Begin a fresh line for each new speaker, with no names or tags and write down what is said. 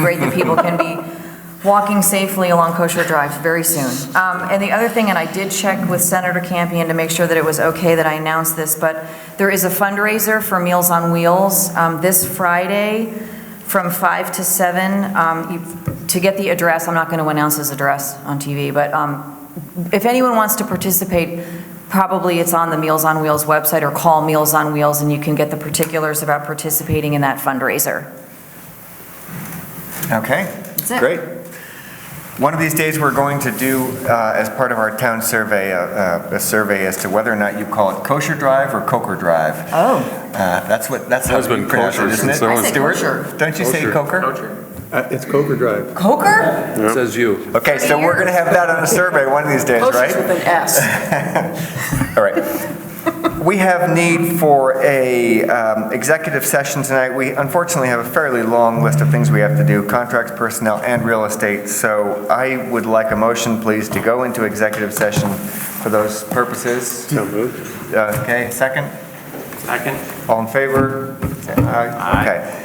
great that people can be walking safely along Kosher Drive very soon. Um, And the other thing, and I did check with Senator Campion to make sure that it was okay that I announced this, but there is a fundraiser for Meals on Wheels um, this Friday from 5 to 7. Um, you- To get the address, I'm not going to announce his address on TV, but um, if anyone wants to participate, probably it's on the Meals on Wheels website or call Meals on Wheels and you can get the particulars about participating in that fundraiser.
Okay,
That's it.
great. One of these days, we're going to do, uh, as part of our town survey, uh, a- a a survey as to whether or not you call it kosher drive or coker drive.
Oh,
Uh, That's what, that's how
Has been
you pronounce it,
kosher
isn't it?
since I was-
I say
Stuart?
kosher.
Don't you say
Kosher.
coker?
Uh, It's Coker Drive.
Coker?
Says you.
Okay, so we're going to have that on a survey one of these days, right?
Motion's with an S.
All right. We have need for a um, executive session tonight. We unfortunately have a fairly long list of things we have to do, contracts, personnel, and real estate. So I would like a motion, please, to go into executive session for those purposes.
So moved.
Uh, Okay, second?
Second.
All in favor? Say Aye. Okay.